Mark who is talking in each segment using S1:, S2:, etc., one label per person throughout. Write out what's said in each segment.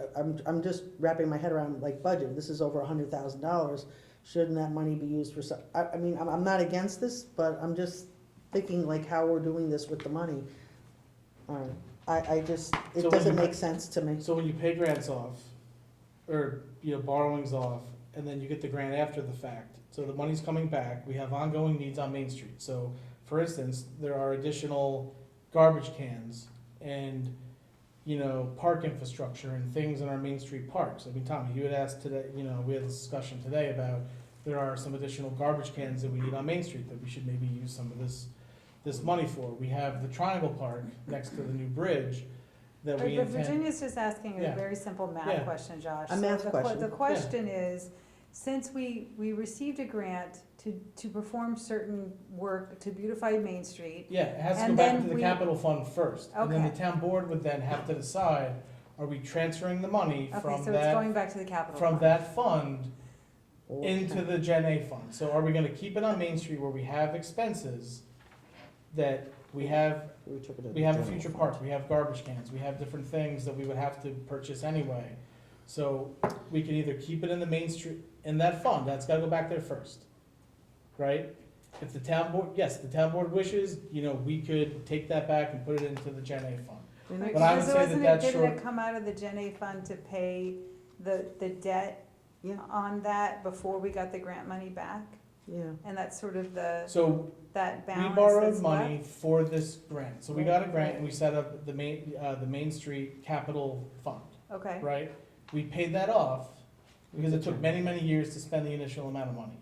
S1: but I'm, I'm just wrapping my head around like budget, this is over a hundred thousand dollars. Shouldn't that money be used for some, I, I mean, I'm, I'm not against this, but I'm just thinking like how we're doing this with the money. Um, I, I just,
S2: So
S1: it
S2: when
S1: doesn't
S2: you-
S1: make sense to me.
S2: So when you pay grants off, or, you know, borrowings off, and then you get the grant after the fact, so the money's coming back, we have ongoing needs on Main Street, so, for instance, there are additional garbage cans and, you know, park infrastructure and things in our Main Street parks, I mean, Tommy, you had asked today, you know, we had this discussion today about there are some additional garbage cans that we need on Main Street that we should maybe use some of this, this money for. We have the Triangle Park next to the new bridge that
S3: But
S2: we
S3: but
S2: intend.
S3: Virginia's just asking a
S2: Yeah.
S3: very simple math
S2: Yeah.
S3: question, Josh.
S1: A
S3: So
S1: math
S3: the que-
S1: question.
S3: The question is, since we, we received a grant to, to perform certain work to beautify Main Street,
S2: Yeah, it has to go
S3: And
S2: back
S3: then
S2: to the
S3: we-
S2: capital fund first, and then the
S3: Okay.
S2: town board would then have to decide, are we transferring the money
S3: okay,
S2: from
S3: so it's going
S2: that,
S3: back to the capital
S2: from
S3: fund.
S2: that fund into the Gen A fund? So are we gonna keep it on Main Street where we have expenses that we have,
S1: We took it to
S2: we have
S1: the
S2: a
S1: general
S2: future
S1: fund.
S2: park, we have garbage cans, we have different things that we would have to purchase anyway? So we can either keep it in the Main Street, in that fund, that's gotta go back there first, right? If the town board, yes, the town board wishes, you know, we could take that back and put it into the Gen A fund.
S1: And
S3: Right,
S1: it-
S2: But I would
S3: so
S2: say that
S3: isn't it-
S2: that's
S3: Didn't
S2: short-
S3: it come out of the Gen A fund to pay the, the debt
S1: Yeah.
S3: on that before we got the grant money back?
S1: Yeah,
S3: And that's sort of the,
S2: So
S3: that
S2: we
S3: balance
S2: borrowed
S3: that's left?
S2: money for this grant, so we got a grant and
S3: Right.
S2: we set up the main, uh, the Main Street Capital Fund,
S3: Okay,
S2: right? We paid that off because it took many, many years to spend the initial amount of money.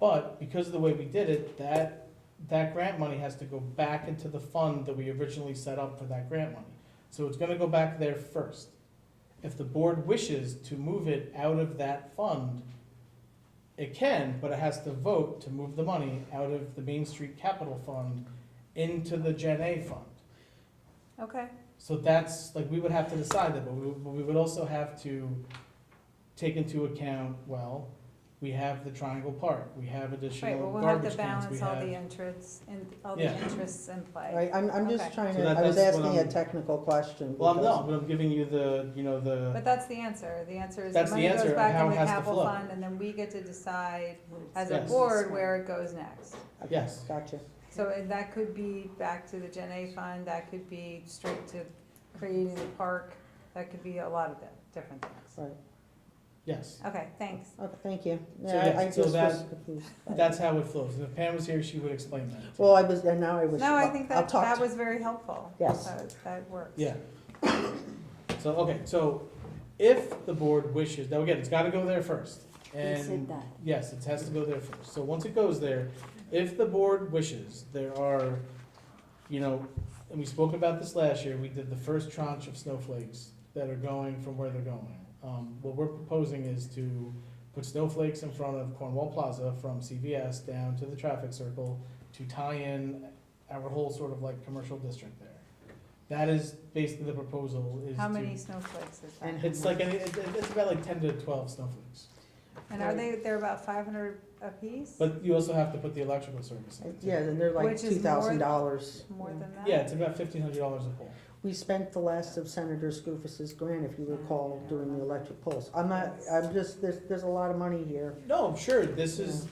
S2: But because of the way we did it, that, that grant money has to go back into the fund that we originally set up for that grant money. So it's gonna go back there first. If the board wishes to move it out of that fund, it can, but it has to vote to move the money out of the Main Street Capital Fund into the Gen A fund.
S3: okay,
S2: So that's, like, we would have to decide that, but we, but we would also have to take into account, well, we have the Triangle Park, we have
S3: right,
S2: additional
S3: well, we'll have to
S2: garbage cans, we
S3: balance all the
S2: have.
S3: interests, in all the
S2: Yeah.
S3: interests in play.
S1: right, I'm, I'm just
S3: Okay.
S1: trying
S2: So
S1: to,
S2: that-
S1: I was
S2: that's
S1: asking
S2: what
S1: a
S2: I'm-
S1: technical question.
S2: Well, I'm
S1: because-
S2: not, but I'm giving you the, you know, the,
S3: But that's the answer. The answer is the
S2: That's the
S3: money
S2: answer
S3: goes
S2: of
S3: back
S2: how
S3: in
S2: it
S3: the
S2: has to
S3: capital
S2: flow.
S3: fund and then we get to decide as a
S2: Yes.
S3: board where it goes next.
S1: Okay,
S2: Yes.
S1: Gotcha.
S3: So and that could be back to the Gen A fund, that could be straight to creating the park, that could be a lot of di- different things.
S2: yes,
S3: Okay, thanks.
S1: Okay, thank you.
S2: So,
S1: Yeah,
S2: yeah,
S1: I I
S2: so
S1: just was
S2: that-
S1: confused.
S2: that's how it flows, and if Pam was here, she would explain that.
S1: Well, I was, and now I was.
S3: No, I think
S1: I'll
S3: that,
S1: talk
S3: that
S1: to-
S3: was very helpful.
S1: Yes.
S3: That- That works.
S2: Yeah. So, okay, so if the board wishes, now again, it's gotta go there first.
S4: He said
S2: And
S4: that.
S2: yes, it has to go there first. So once it goes there, if the board wishes, there are, you know, and we spoke about this last year, we did the first tranche of snowflakes that are going from where they're going. Um, what we're proposing is to put snowflakes in front of Cornwall Plaza from CVS down to the traffic circle to tie in our whole sort of like commercial district there. That is basically the proposal is
S3: How
S2: to-
S3: many snowflakes is that?
S1: And-
S2: It's like, any- it- it's about like ten to twelve snowflakes.
S3: And are they, they're about five hundred apiece?
S2: But you also have to put the electrical service in. too.
S1: Yeah, and they're like
S3: Which
S1: two
S3: is more-
S1: thousand dollars.
S3: More than that?
S2: Yeah, it's about fifteen hundred dollars a pole.
S1: We spent the last of Senator Scoofus's grant, if you
S3: Mm-hmm.
S1: recall, doing the electric poles. I'm not, I'm just, there's, there's a lot of money here.
S2: No, sure, this is,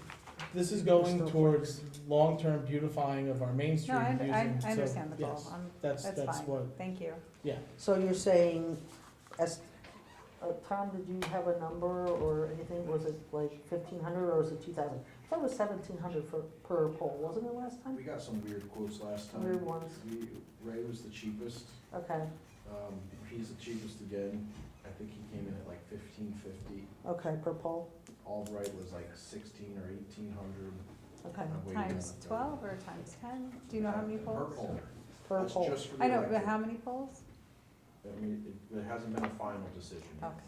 S2: this is going
S1: Still
S2: towards long-term beautifying of our Main Street.
S3: No, I,
S2: using-
S3: under- I,
S2: so,
S3: I understand the goal.
S2: yes,
S3: I'm-
S2: That's,
S3: That's
S2: that's
S3: fine.
S2: what,
S3: Thank you.
S1: So you're saying, as, uh, Tom, did you have a number or anything? Was it like fifteen hundred or was it two thousand? I thought it was seventeen hundred for, per pole, wasn't it last time?
S5: We got some weird quotes last time.
S1: Weird ones.
S5: We- Ray was the cheapest,
S1: Okay,
S5: um, he's the cheapest again, I think he came in at like fifteen fifty.
S1: okay, per pole,
S5: Albright was like sixteen or eighteen hundred.
S1: okay,
S3: Uh, Times twelve or times ten? Do you know how many
S5: Per
S3: poles?
S5: pole.
S1: per
S5: That's
S1: pole.
S5: just for the
S3: I know, but
S5: electric.
S3: how many poles?
S5: I mean, it, there hasn't been a final decision yet,
S3: Okay.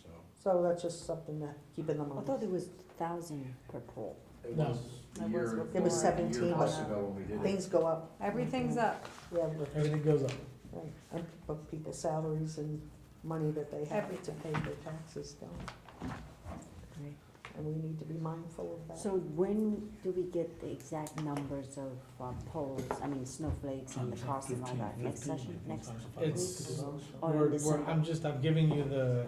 S5: so.
S1: So that's just something to keep in the
S4: I
S1: mind.
S4: thought it was thousand per pole.
S5: It
S2: No.
S5: was a
S4: It was
S5: year,
S4: before.
S5: a
S1: It was
S5: year
S1: seventeen,
S5: plus
S1: but
S5: ago when we did it.
S1: things go up.
S3: Everything's up.
S1: Yeah, but-
S2: everything goes up.
S1: Right, and but people's salaries and money that they have to pay their taxes down, and we need to be mindful of that.
S4: So when do we get the exact numbers of uh, poles, I mean snowflakes and the cost and all that, next session, next?
S2: It's,
S4: Or in
S2: we're, we're,
S4: December?
S2: I'm just, I'm giving you the,